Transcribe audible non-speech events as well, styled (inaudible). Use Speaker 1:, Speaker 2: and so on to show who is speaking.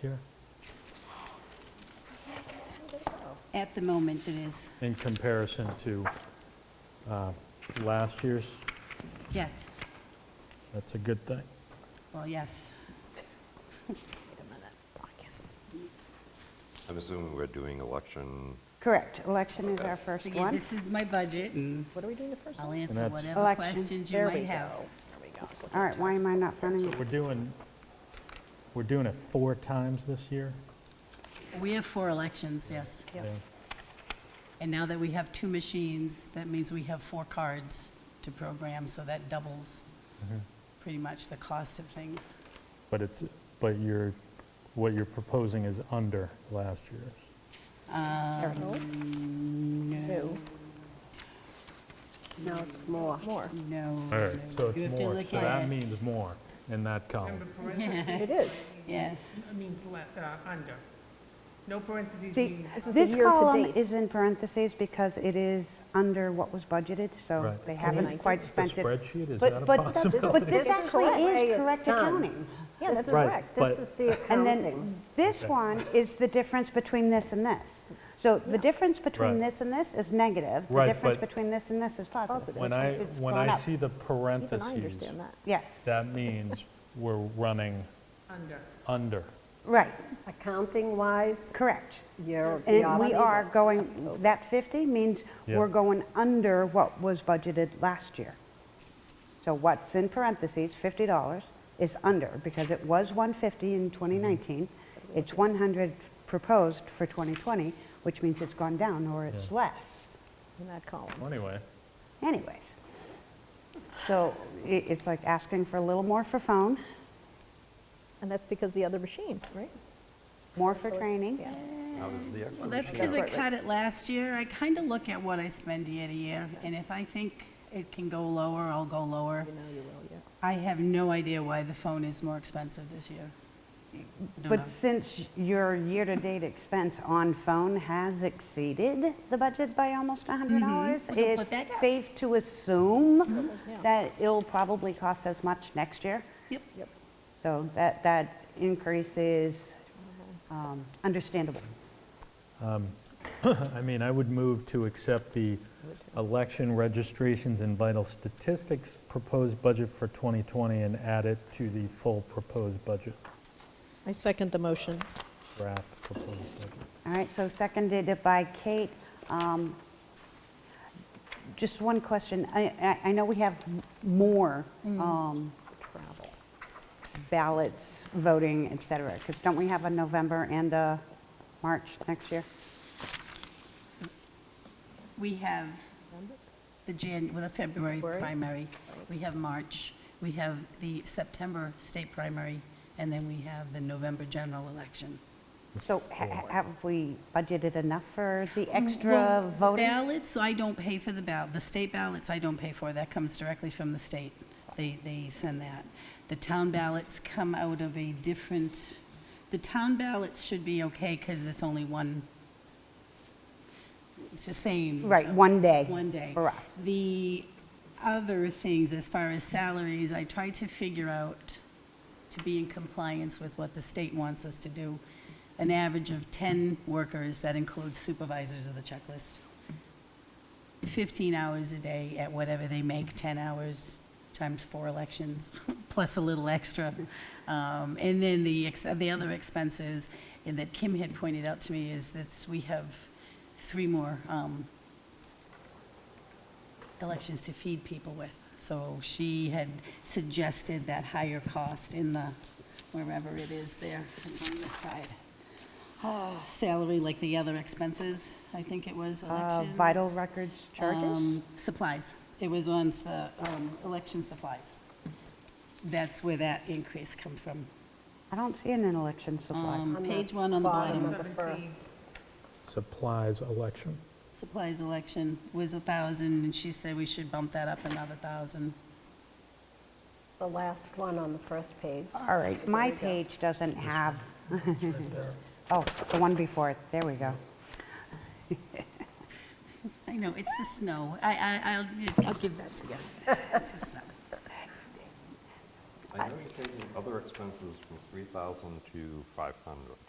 Speaker 1: here?
Speaker 2: At the moment, it is,
Speaker 1: In comparison to uh, last year's,
Speaker 2: yes,
Speaker 1: that's a good thing.
Speaker 2: well, yes.
Speaker 3: I'm assuming we're doing election,
Speaker 4: Correct, election is our
Speaker 2: So
Speaker 4: first
Speaker 2: again,
Speaker 4: one. Mm.
Speaker 2: this is my budget.
Speaker 5: What are we doing the first
Speaker 2: I'll
Speaker 5: one?
Speaker 2: answer
Speaker 1: that's-
Speaker 2: whatever
Speaker 4: Election.
Speaker 2: questions you
Speaker 4: There
Speaker 2: might
Speaker 4: we
Speaker 2: have.
Speaker 5: There we go. I was looking
Speaker 4: All right,
Speaker 5: at
Speaker 4: why am I not finding
Speaker 1: We're
Speaker 4: it?
Speaker 1: doing, we're doing it four times this year?
Speaker 2: We have four elections, yes.
Speaker 5: Yep.
Speaker 1: Yeah.
Speaker 2: And now that we have two machines, that means we have four cards to program, so that doubles
Speaker 1: Mm-hmm.
Speaker 2: pretty much the cost of things.
Speaker 1: But it's, but you're, what you're proposing is under last year's.
Speaker 4: There we go.
Speaker 2: Um,
Speaker 1: Mm,
Speaker 5: No.
Speaker 4: No, it's more.
Speaker 5: More.
Speaker 2: No.
Speaker 1: All right, so
Speaker 2: You
Speaker 1: it's
Speaker 2: have to
Speaker 1: more,
Speaker 2: look
Speaker 1: so that
Speaker 2: at-
Speaker 1: means more in that column.
Speaker 5: It is.
Speaker 2: Yeah,
Speaker 6: It means le- uh, under. No parentheses
Speaker 4: See,
Speaker 6: mean,
Speaker 5: This is the
Speaker 4: this
Speaker 5: year to
Speaker 4: column
Speaker 5: date.
Speaker 4: is in parentheses because it is under what was budgeted, so
Speaker 1: Right.
Speaker 4: they
Speaker 1: Can
Speaker 4: haven't quite
Speaker 1: The
Speaker 4: spent it.
Speaker 1: spreadsheet, is
Speaker 4: But-
Speaker 1: that a
Speaker 4: but- But
Speaker 1: possibility?
Speaker 4: this
Speaker 5: This is
Speaker 4: actually
Speaker 5: correct.
Speaker 4: is
Speaker 5: It's
Speaker 4: correct
Speaker 5: done.
Speaker 4: accounting.
Speaker 5: Yeah, that's
Speaker 1: Right,
Speaker 5: correct.
Speaker 1: but-
Speaker 5: This is the
Speaker 4: And
Speaker 5: accounting.
Speaker 4: then this one is the difference between this and this. So the difference between
Speaker 1: Right.
Speaker 4: this and this is negative. The
Speaker 1: Right,
Speaker 4: difference
Speaker 1: but-
Speaker 4: between this and this is positive.
Speaker 5: Positive.
Speaker 1: When I,
Speaker 5: It's
Speaker 1: when
Speaker 5: gone
Speaker 1: I
Speaker 5: up.
Speaker 1: see the
Speaker 5: Even I
Speaker 1: parentheses,
Speaker 5: understand that.
Speaker 4: Yes,
Speaker 1: that
Speaker 2: (laughs)
Speaker 1: means we're running
Speaker 6: under.
Speaker 1: under.
Speaker 4: right,
Speaker 5: Accounting-wise,
Speaker 4: correct.
Speaker 5: you're
Speaker 4: And we
Speaker 5: beyond-
Speaker 4: are going, that 50 means
Speaker 1: Yeah.
Speaker 4: we're going under what was budgeted last year. So what's in parentheses, $50, is under, because it was 150 in
Speaker 1: Mm-hmm.
Speaker 4: 2019. It's 100 proposed for 2020, which means it's gone down or it's
Speaker 1: Yeah.
Speaker 4: less.
Speaker 5: in that column.
Speaker 1: Well, Anyway,
Speaker 4: Anyways, so i- it's like asking for a little more for phone,
Speaker 5: And that's because the other machine, right?
Speaker 4: more for training.
Speaker 5: Yeah.
Speaker 3: how does the
Speaker 2: well,
Speaker 3: actual?
Speaker 2: that's because I cut it last year. I kind of look at what I spend year to year, and if I think it can go lower, I'll go lower.
Speaker 5: You know you will, yeah.
Speaker 2: I have no idea why the phone is more expensive this year. Don't know.
Speaker 4: But since your year-to-date expense on phone has exceeded the budget by almost $100,
Speaker 2: We can Mm-hmm. put
Speaker 4: it's
Speaker 2: that down. Mm-hmm.
Speaker 4: safe to assume
Speaker 5: down.
Speaker 4: that it'll probably cost as much next year.
Speaker 2: Yep.
Speaker 5: Yep.
Speaker 4: So that, that increase is um, understandable.
Speaker 1: I mean, I would move to accept the election registrations and vital statistics proposed budget for 2020 and add it to the full proposed budget,
Speaker 5: I second the motion.
Speaker 1: draft proposed budget.
Speaker 4: All right, so seconded by Kate. Um, Just one question. I- I I know we have m- more
Speaker 2: Mm.
Speaker 4: um, travel, ballots, voting, et cetera, because don't we have a November and a March next year?
Speaker 2: We have the Jan, well, the February
Speaker 5: February.
Speaker 2: primary, we have March, we have the September state primary, and then we have the November general election.
Speaker 4: So ha- ha- have we budgeted enough for the
Speaker 2: Mm, Well,
Speaker 4: extra voting?
Speaker 2: Ballots, I don't pay for the ballot, the state ballots I don't pay for, that comes directly from the state. They, they send that. The town ballots come out of a different, the town ballots should be okay because it's only one, it's the same.
Speaker 4: Right,
Speaker 2: so-
Speaker 4: one day.
Speaker 2: One day.
Speaker 4: For us.
Speaker 2: The other things, as far as salaries, I tried to figure out, to be in compliance with what the state wants us to do, an average of 10 workers, that includes supervisors of the checklist, 15 hours a day at whatever they make, 10 hours times four elections, (laughs) plus a little extra. Um, And then the, ex- the other expenses, and that Kim had pointed out to me, is that we have three more um, elections to feed people with. So she had suggested that higher cost in the, wherever it is there, it's on this side. Ah, Salary, like the other expenses, I think it was,
Speaker 4: Uh,
Speaker 2: elections.
Speaker 4: Vital records charges?
Speaker 2: Um, Supplies. It was on s- the um, election supplies. That's where that increase come from.
Speaker 4: I don't see an election supplies.
Speaker 2: Um, Page one on the
Speaker 5: of
Speaker 2: bottom,
Speaker 5: the first.
Speaker 1: Supplies election.
Speaker 2: supplies election was a 1,000, and she said we should bump that up another 1,000.
Speaker 7: The last one on the first page.
Speaker 4: All right, my page doesn't have, (laughs) oh, the one before it, there we go.
Speaker 2: I know, it's the snow. I, I, I'll, I'll give that to you. It's the snow.
Speaker 3: I know you're taking other expenses from 3,000 to 500.